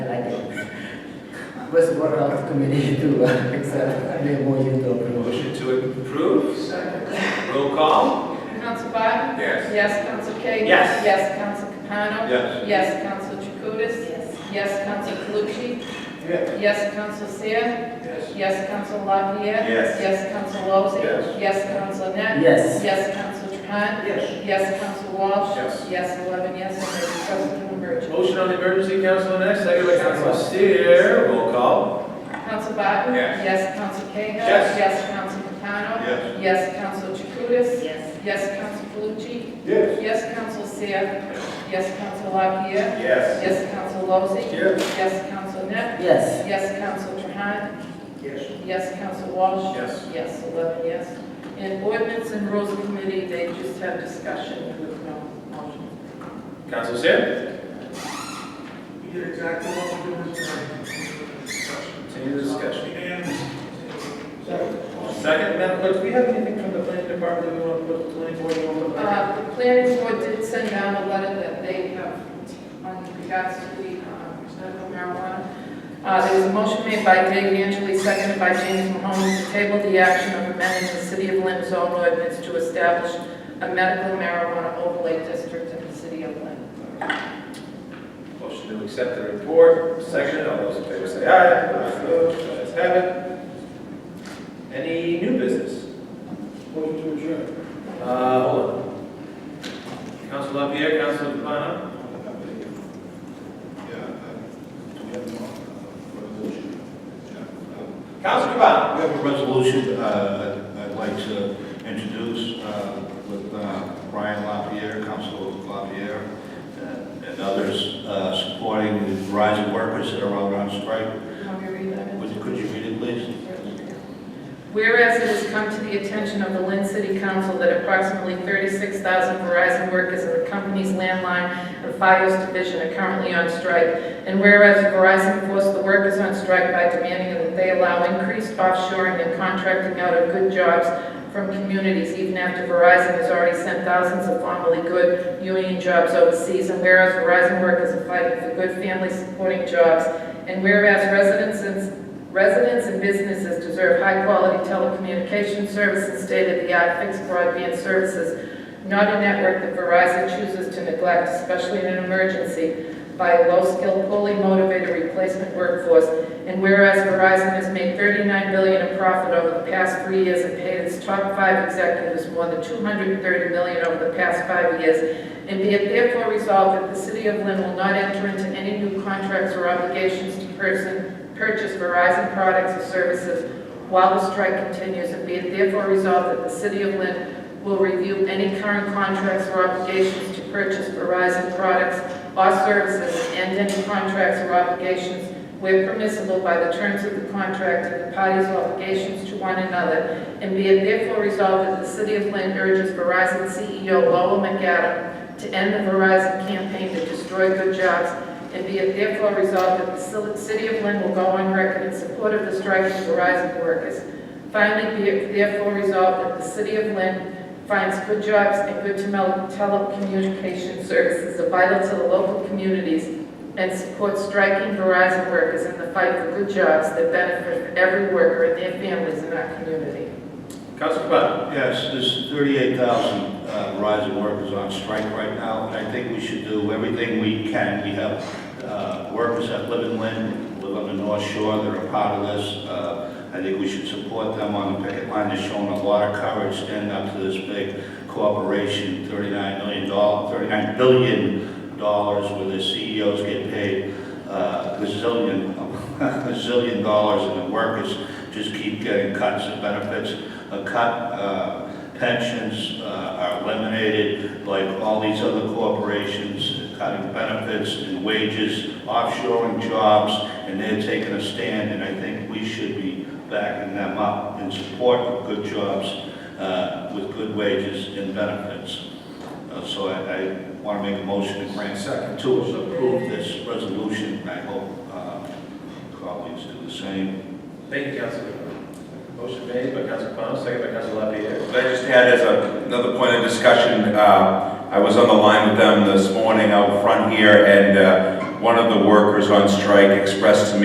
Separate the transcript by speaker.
Speaker 1: Reservoir Health Committee to uh, accept the MOU to approve.
Speaker 2: Motion to approve. Roll call.
Speaker 3: Council Biden?
Speaker 2: Yes.
Speaker 3: Yes, Council Cahill?
Speaker 2: Yes.
Speaker 3: Yes, Council Capano?
Speaker 2: Yes.
Speaker 3: Yes, Council Jacutis? Yes. Yes, Council Calucci?
Speaker 2: Yes.
Speaker 3: Yes, Council Seer?
Speaker 2: Yes.
Speaker 3: Yes, Council LaPierre?
Speaker 2: Yes.
Speaker 3: Yes, Council Lozey?
Speaker 2: Yes.
Speaker 3: Yes, Council Net?
Speaker 1: Yes.
Speaker 3: Yes, Council Trahan?
Speaker 2: Yes.
Speaker 3: Yes, Council Walsh?
Speaker 2: Yes.
Speaker 3: Yes, eleven yes, and there is present an emergency.
Speaker 4: Motion on the emergency, Council Net, second by Council Steer.
Speaker 2: Roll call.
Speaker 3: Council Biden?
Speaker 2: Yes.
Speaker 3: Yes, Council Cahill?
Speaker 2: Yes.
Speaker 3: Yes, Council Capano?
Speaker 2: Yes.
Speaker 3: Yes, Council Jacutis?
Speaker 5: Yes.
Speaker 3: Yes, Council Calucci?
Speaker 2: Yes.
Speaker 3: Yes, Council Seer? Yes, Council LaPierre?
Speaker 2: Yes.
Speaker 3: Yes, Council Lozey.
Speaker 2: Yes.
Speaker 3: Yes, Council Net.
Speaker 1: Yes.
Speaker 3: Yes, Council Trahan.
Speaker 2: Yes.
Speaker 3: Yes, Council Walsh.
Speaker 2: Yes.
Speaker 3: Yes, eleven yes. And ordinance and rules committee, they just have discussion with no motion.
Speaker 4: Council Steer.
Speaker 6: We did exactly what we were doing tonight.
Speaker 4: Continue the discussion.
Speaker 6: And- Second.
Speaker 4: Second, Madam Clerk, do we have anything from the planning department we want to put, the planning board we want to put? on?
Speaker 3: Uh, The planning board did send down a letter that they have on regards to the uh, medical marijuana. Uh, There was a motion made by Dave Angeli, seconded by James Mahoney, to table the action of amending the City of Lynn's own ordinance to establish a medical marijuana overlay district in the City of Lynn.
Speaker 4: Motion to accept the report, second, all those in favor say aye. Opposed, ayes have it. Any new business?
Speaker 6: Motion to adjourn.
Speaker 4: Uh, hold on. Council Lapierre, Council Capano? Council Capano?
Speaker 7: I have a resolution uh, I'd like to introduce uh, with uh, Brian LaPierre, Council LaPierre, and and others uh, supporting the Verizon workers that are out on strike.
Speaker 3: Want me to read that in?
Speaker 7: Would you- Could you read it, please?
Speaker 3: Whereas it has come to the attention of the Lynn City Council that approximately 36,000 Verizon workers in the company's landline and Fios division are currently on strike, and whereas Verizon forced the workers on strike by demanding that they allow increased offshoring and contracting out of good jobs from communities, even after Verizon has already sent thousands of formerly good union jobs overseas, and whereas Verizon workers are fighting for good family-supporting jobs, and whereas residents in Residents and businesses deserve high-quality telecommunication services, state-of-the-art fixed broadband services, not a network that Verizon chooses to neglect, especially in an emergency, by a low-skilled, poorly motivated replacement workforce. And whereas Verizon has made $39 billion in profit over the past three years and paid its top five executives more than $230 million over the past five years, and be it therefore resolved that the City of Lynn will not enter into any new contracts or obligations to person, purchase Verizon products or services while the strike continues, and be it therefore resolved that the City of Lynn will review any current contracts or obligations to purchase Verizon products or services, and any contracts or obligations where permissible by the terms of the contract and the parties' obligations to one another, and be it therefore resolved that the City of Lynn urges Verizon CEO Lowell McAdam to end the Verizon campaign to destroy good jobs, and be it therefore resolved that the Sil- City of Lynn will go on record in support of the strike of Verizon workers. Finally, be it therefore resolved that the City of Lynn finds good jobs and good tele- telecommunication services are vital to the local communities and supports striking Verizon workers in the fight for good jobs that benefit every worker and their families in our community.
Speaker 4: Council Capano?
Speaker 7: Yes, there's 38,000 uh, Verizon workers on strike right now, and I think we should do everything we can. We have uh, workers that live in Lynn, live on the North Shore, they're a part of this. Uh, I think we should support them on the picket line, they're showing a lot of courage, standing up to this big corporation, $39 million, $39 billion dollars where the CEOs get paid uh, gazillion, gazillion dollars, and the workers just keep getting cuts and benefits a cut, uh, pensions uh, are eliminated, like all these other corporations, cutting benefits and wages, offshoring jobs, and they're taking a stand, and I think we should be backing them up in support of good jobs uh, with good wages and benefits. Uh, So I, I want to make a motion to grant second to approve this resolution, and I hope uh, colleagues do the same.
Speaker 4: Thank you, Council Capano. Motion made by Council Capano, second by Council Lapierre.
Speaker 8: Could I just add as a- another point of discussion, uh, I was on the line with them this morning out front here, and uh, one of the workers on strike expressed to me